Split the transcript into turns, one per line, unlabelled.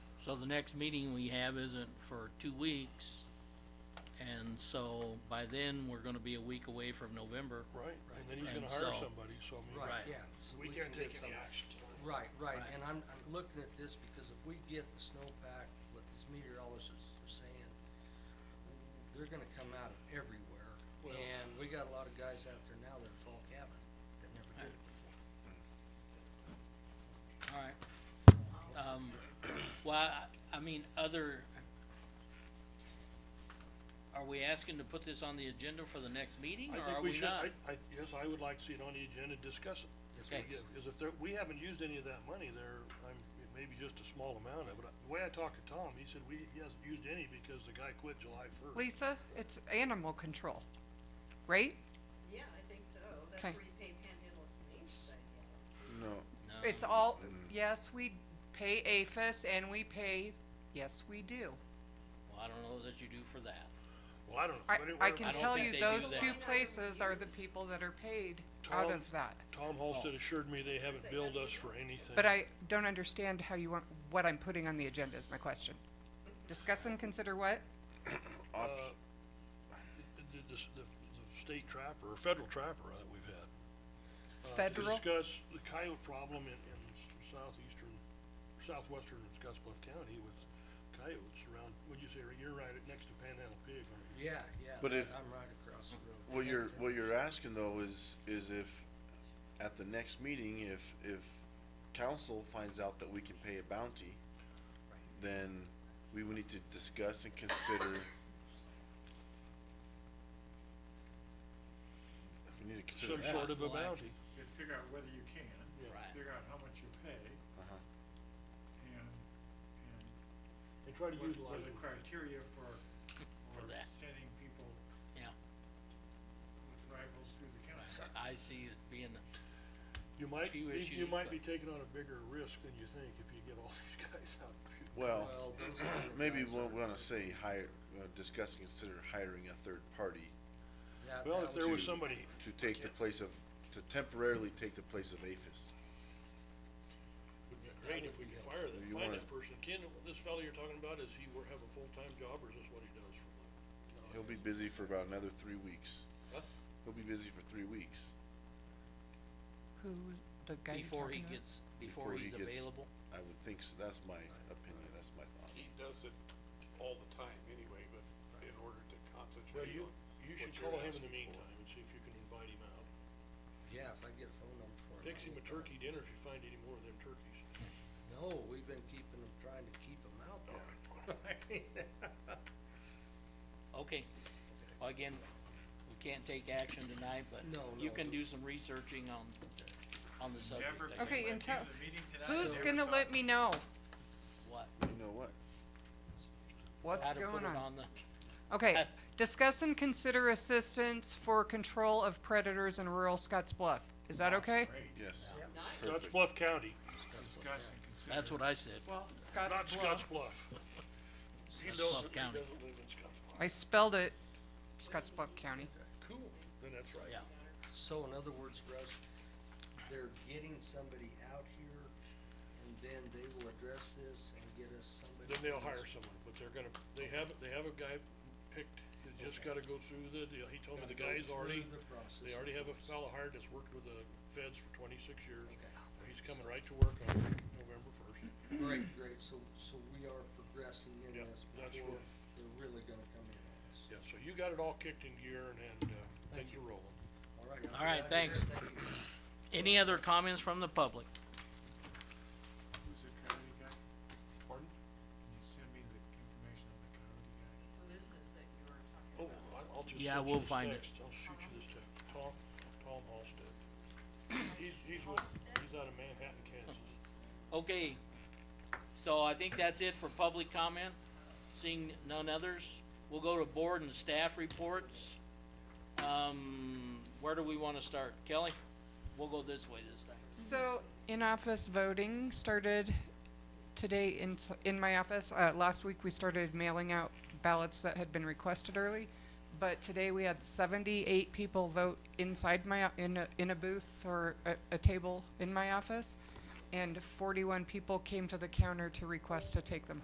So the next meeting we have isn't for two weeks. And so by then, we're gonna be a week away from November.
Right, and then he's
And
gonna hire
so-
somebody, so I mean.
Right.
Right, yeah. so
We
can
can't take
get
any
some-
action tonight.
Right, right,
Right.
and I'm, I'm looking at this because if we get the snowpack, what these meteorologists are saying, they're gonna come out of everywhere,
Well-
and we got a lot of guys out there now that are fall cabin, that never did it before.
Alright. Um, well, I- I mean, other. Are we asking to put this on the agenda for the next meeting,
I
or are
think we
we
should,
not?
I, I, yes, I would like to see it on the agenda, discuss it.
Okay.
Yeah, cause if there, we haven't used any of that money there, I'm, maybe just a small amount of it. The way I talked to Tom, he said we, he hasn't used any because the guy quit July first.
Lisa, it's animal control, right?
Yeah, I think so. That's
Okay.
where you pay Panhandle Humane Society. out of.
No.
It's all, yes, we pay APHIS and we pay, yes, we do.
Well, I don't know that you do for that.
Well, I don't know,
I,
but it,
I
where-
can
don't
tell
think
you
they do
those
that.
two places are the people that are paid out
Tom-
of that.
Tom
Oh.
Halsted assured me they haven't billed us for anything.
But I don't understand how you want, what I'm putting on the agenda is my question. Discuss and consider what?
Uh, The, the- the, the, the state trapper, or federal trapper uh, that we've had. to
Federal?
discuss the coyote problem in, in s- southeastern, southwestern Scottsbluff County with coyotes around, what'd you say, right- you're right, next to Panhandle Pig, aren't you?
Yeah, yeah,
But if-
I'm right across the road.
What you're,
Everything.
what you're asking though is, is if, at the next meeting, if, if council finds out that we can pay a bounty, then we would need to discuss and consider. We need to consider
Some
that.
sort of a
Possible action.
bounty.
You gotta figure out whether you can,
Right.
figure out how much you pay,
Uh-huh.
and, and
And try to
what, what
utilize
are the
it.
criteria for, for
that.
sending people
Yeah,
with rifles through the county.
I see it being,
You might,
few
you- you
issues,
might
but-
be taking on a bigger risk than you think if you get all these guys out. shooting.
Well,
Well, those are the
maybe
guys
we'll
that-
wanna say hire, uh, discuss and consider hiring a third party
that-
Well,
that
if there was
would be-
somebody,
to take the place of, to temporarily take the place of APHIS.
would be great if we could fire that,
You
find
wanna-
that person. Ken, this fellow you're talking about, is he wor- have a full-time job or is this what he does for a living?
He'll be busy for about another three weeks.
Huh?
He'll be busy for three weeks.
Who, the guy you're
before he
talking about?
gets, before he's
gets-
available.
I would think so, that's my opinion, that's my thought.
he does it all the time anyway, but in order to
Well,
concentrate
you,
on.
you
what
should
you're
call him in
asking
the
for.
meantime and see if you can invite him out.
Yeah, if I get a phone number for him.
Fix
I
him a
will.
turkey dinner if you find any more of them turkeys.
No, we've been keeping them, trying to keep them out there.
Okay, well, again, we can't take action tonight, but
No,
you
no.
can do some researching on, on the subject.
Never
I
been-
guess.
Okay, and tell,
The meeting tonight,
who's
there
gonna
was
let me know
What,
You know what?
what's
how to put
going
it
on?
on the,
Okay,
At-
discuss and consider assistance for control of predators in rural Scotts Bluff. Is that okay?
Yes.
Scotts
Perfect.
Bluff County,
Discuss and consider.
that's what I said.
Well,
not
Scotts
Scotts
Bluff.
Bluff. He
Scotts Bluff
doesn't, he
County.
doesn't live in Scotts Bluff.
I spelled it Scotts Bluff County.
Cool, then that's right.
Yeah,
So in other words, Russ, they're getting somebody out here and then they will address this and get us
Then
somebody.
they'll hire someone, but they're gonna, they have, they have a guy picked, he's just gotta go through the deal. He told me the
Gotta go
guy's already,
through the process.
they already have a fellow hired that's worked with the feds for twenty-six years.
Okay.
He's coming right to work on November first.
Great, great, so, so we are progressing in
Yeah,
this
that's
before
right.
they're really gonna come in on us.
Yeah, so you got it all kicked into gear and, and, uh,
Thank
things are rolling.
All right. I'm
All right, thanks.
glad you're here. Thank you.
any other comments from the public?
Who's the coyote guy?
Pardon?
Can you send me the information on the coyote guy?
Who is this that you were
Oh,
talking about?
I- I'll just
Yeah,
send you
we'll
this
find it.
text. I'll shoot you this text, Tom, Tom Halsted. He's, he's with,
Halsted?
he's out of Manhattan, Kansas.
Okay, so I think that's it for public comment. Seeing none others, we'll go to board and staff reports. Um, where do we wanna start? Kelly? We'll go this way this time.
So, in-office voting started today in, s- in my office. Uh, last week, we started mailing out ballots that had been requested early. But today, we had seventy-eight people vote inside my, o- in a, in a booth or a, a table in my office. And forty-one people came to the counter to request to take them